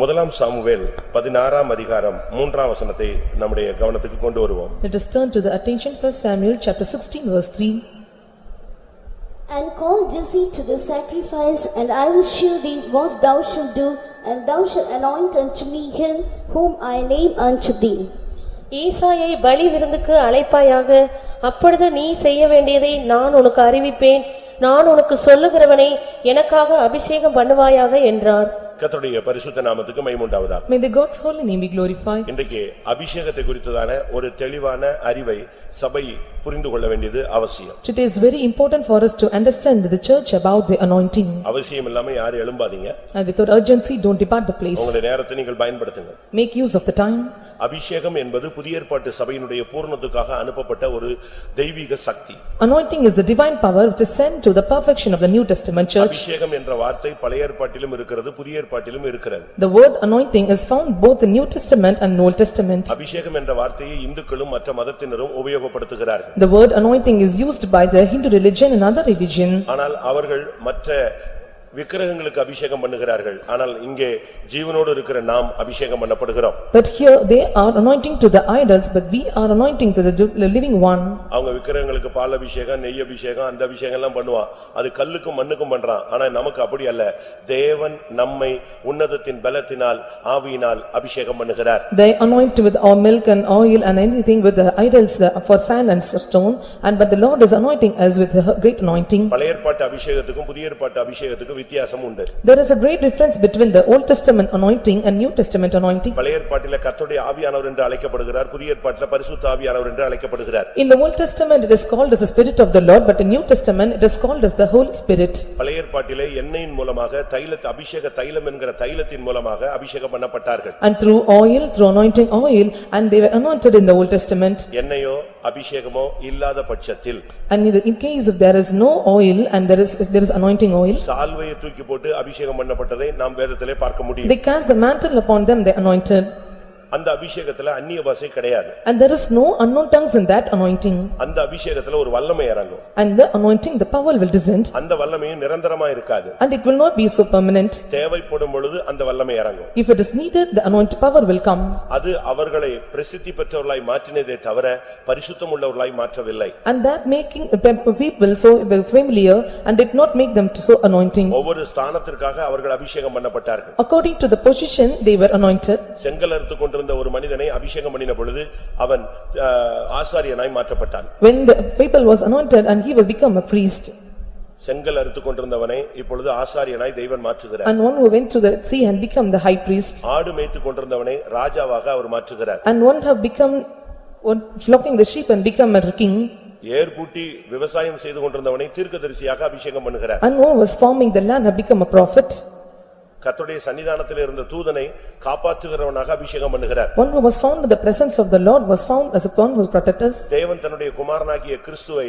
முதலாம் சாமுவேல் பதினாறாம் அதிகாரம் மூன்றாம் வசனத்தை நம்முடைய கவனத்துக்கு கொண்டு வருவோம் Let us turn to the attention for Samuel chapter sixteen verse three. And call Jesse to the sacrifice, and I will shew thee what thou shalt do, and thou shalt anoint unto me him whom I name unto thee. ஈசாயை பலி விருந்துக்கு அழைப்பாயாக அப்பொழுது நீ செய்ய வேண்டியதை நான் உனக்கு அறிவிப்பேன் நான் உனக்கு சொல்லுகிறவனை எனக்காக அபிஷேகம் பண்ணுவாயாக என்றார் கர்த்தருடைய பரிசுத்த நாமத்துக்கு மைமுண்டாவதாக May the God's holy name be glorified. இன்றைக்கு அபிஷேகத்தை குறித்ததான ஒரு தெளிவான அறிவை சபை புரிந்து கொள்ள வேண்டியது அவசியம் Today is very important for us to understand the church about the anointing. அவசியம் இல்லாம யாரும் எழும்பாதீங்க And without urgency, don't depart the place. உங்களுடைய நேரத்தை நீங்கள் பயன்படுத்துங்க Make use of the time. அபிஷேகம் என்பது புதிய ஏற்பாட்டு சபையினுடைய பூரணத்துக்காக அனுப்பப்பட்ட ஒரு தெய்வீக சக்தி Anointing is the divine power which is sent to the perfection of the New Testament church. அபிஷேகம் என்ற வார்த்தை பழைய ஏற்பாட்டிலும் இருக்கிறது புதிய ஏற்பாட்டிலும் இருக்கிறது The word anointing is found both in New Testament and Old Testament. அபிஷேகம் என்ற வார்த்தையை இந்துக்களும் மற்ற மதத்தினரும் உபயோகப்படுத்துகிறார்கள் The word anointing is used by the Hindu religion and other religion. ஆனால் அவர்கள் மற்ற விக்கிரகங்களுக்கு அபிஷேகம் பண்ணுகிறார்கள் ஆனால் இங்கே ஜீவனோடு இருக்கிற நாம் அபிஷேகம் பண்ணப்படுகிறோம் But here they are anointing to the idols, but we are anointing to the du- the living one. அவங்க விக்கிரகங்களுக்கு பால் அபிஷேகம் நெய் அபிஷேகம் அந்த அபிஷேகம் எல்லாம் பண்ணுவான் அது கல்லுக்கும் மண்ணுக்கும் பண்றான் ஆனா நமக்கு அப்படி அல்ல தேவன் நம்மை உன்னதத்தின் பலத்தினால் ஆவியினால் அபிஷேகம் பண்ணுகிறார் They anoint with our milk and oil and anything with the idols the- for sand and stone. And but the Lord is anointing us with a great anointing. பழைய ஏற்பாட்டு அபிஷேகத்துக்கும் புதிய ஏற்பாட்டு அபிஷேகத்துக்கும் வித்தியாசம் உண்டு There is a great difference between the Old Testament anointing and New Testament anointing. பழைய ஏற்பாட்டில கர்த்தருடைய ஆவியானவர் என்று அழைக்கப்படுகிறார் புதிய ஏற்பாட்டில பரிசுத்த ஆவியானவர் என்று அழைக்கப்படுகிறார் In the Old Testament, it is called as the Spirit of the Lord, but in New Testament, it is called as the Holy Spirit. பழைய ஏற்பாட்டிலே எண்ணெயின் மூலமாக தைலத்து அபிஷேக தைலம் என்கிற தைலத்தின் மூலமாக அபிஷேகம் பண்ணப்பட்டார்கள் And through oil, through anointing oil, and they were anointed in the Old Testament. எண்ணெயோ அபிஷேகமோ இல்லாத பட்சத்தில் And in the- in case if there is no oil and there is, if there is anointing oil, சால்வையை தூக்கி போட்டு அபிஷேகம் பண்ணப்பட்டதை நாம் வேதத்திலே பார்க்க முடியும் they cast the mantle upon them, they anointed. அந்த அபிஷேகத்துல அந்நிய பாஷை கிடையாது And there is no unknown tongues in that anointing. அந்த அபிஷேகத்துல ஒரு வல்லமை இறங்கும் And the anointing, the power will descend, அந்த வல்லமையும் நிரந்தரமா இருக்காது and it will not be so permanent. தேவைப்படும் பொழுது அந்த வல்லமை இறங்கும் If it is needed, the anointed power will come. அது அவர்களை பிரசித்தி பெற்றவர்களாய் மாற்றினதே தவிர பரிசுத்தம் உள்ளவர்களாய் மாற்றவில்லை And that making the people so familiar and did not make them so anointing. ஒவ்வொரு ஸ்தானத்திற்காக அவர்கள் அபிஷேகம் பண்ணப்பட்டார்கள் According to the position, they were anointed. செங்கல் அறுத்துக் கொண்டிருந்த ஒரு மனிதனை அபிஷேகம் பண்ணின பொழுது அவன் ஆ, ஆசாரியனாய் மாற்றப்பட்டான் When the people was anointed and he will become a priest. செங்கல் அறுத்துக் கொண்டிருந்தவனை இப்பொழுது ஆசாரியனாய் தெய்வன் மாற்றுகிறார் And one who went to the sea and become the high priest. ஆடு மேய்த்துக் கொண்டிருந்தவனை ராஜாவாக அவர் மாற்றுகிறார் And one have become, one flocking the sheep and become a king. ஏர் பூட்டி விவசாயம் செய்து கொண்டிருந்தவனை தீர்க்கதரிசியாக அபிஷேகம் பண்ணுகிறார் And one was farming the land have become a prophet. கர்த்தருடைய சன்னிதானத்தில் இருந்த தூதனை காப்பாற்றுகிறவனாக அபிஷேகம் பண்ணுகிறார் One who was found in the presence of the Lord was found as a one who protected us. தேவன் தன்னுடைய குமாரனாகிய கிறிஸ்துவை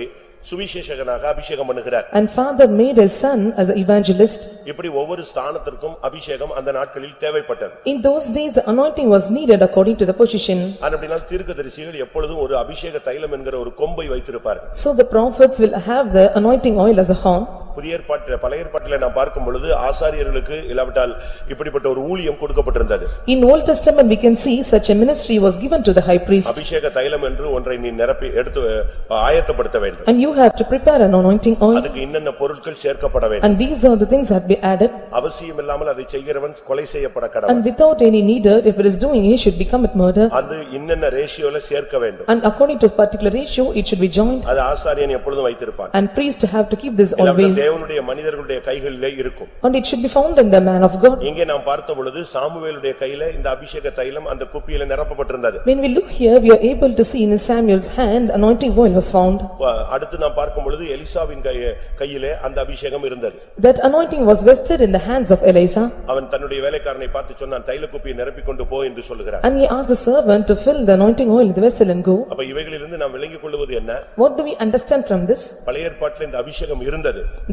சுவிசேஷகனாக அபிஷேகம் பண்ணுகிறார் And father made his son as an evangelist. இப்படி ஒவ்வொரு ஸ்தானத்திற்கும் அபிஷேகம் அந்த நாட்களில் தேவைப்பட்டது In those days, the anointing was needed according to the position. ஆனா அப்படினால் தீர்க்கதரிசிகள் எப்பொழுதும் ஒரு அபிஷேக தைலம் என்கிற ஒரு கொம்பை வைத்திருப்பார்கள் So the prophets will have the anointing oil as a horn. புதிய ஏற்பாட்டு பழைய ஏற்பாட்டில நான் பார்க்கும் பொழுது ஆசாரியர்களுக்கு இல்லாவிட்டால் இப்படிப்பட்ட ஒரு ஊழியம் கொடுக்கப்பட்டிருந்தது In Old Testament, we can see such a ministry was given to the high priest. அபிஷேக தைலம் என்று ஒன்றை நீ நிரப்பி எடுத்து அஹ், ஆயத்தப்படுத்த வேண்டும் And you have to prepare an anointing oil. அதுக்கு என்னென்ன பொருட்கள் சேர்க்கப்பட வேண்டும் And these are the things that be added. அவசியம் இல்லாமல் அதை செய்கிறவன் கொலை செய்யப்பட கடவன் And without any needer, if it is doing, he should become a murder. அது இன்னென்ன ரேஷியோல சேர்க்க வேண்டும் And according to a particular ratio, it should be joined. அது ஆசாரியன் எப்பொழுதும் வைத்திருப்பான் And priest have to keep this இல்லாவிட்டால் always. தேவனுடைய மனிதர்களுடைய கைகளிலே இருக்கும் And it should be found in the man of God. இங்கே நாம் பார்த்த பொழுது சாமுவேலுடைய கையில இந்த அபிஷேக தைலம் அந்த குப்பியில நிரப்பப்பட்டிருந்தது When we look here, we are able to see in Samuel's hand, anointing oil was found. வ- அடுத்து நாம் பார்க்கும் பொழுது எலிசாவின் கைய- கையிலே அந்த அபிஷேகம் இருந்தது That anointing was vested in the hands of Eliza. அவன் தன்னுடைய வேலைக்காரனை பார்த்து சொன்னான் தைல குப்பியை நிரப்பிக் கொண்டு போ என்று சொல்லுகிறான் And he asked the servant to fill the anointing oil in the vessel and go. அப்ப இவைகளிலிருந்து நாம் விளங்கிக் கொள்வது என்ன What do we understand from this? பழைய ஏற்பாட்டில் இந்த அபிஷேகம் இருந்தது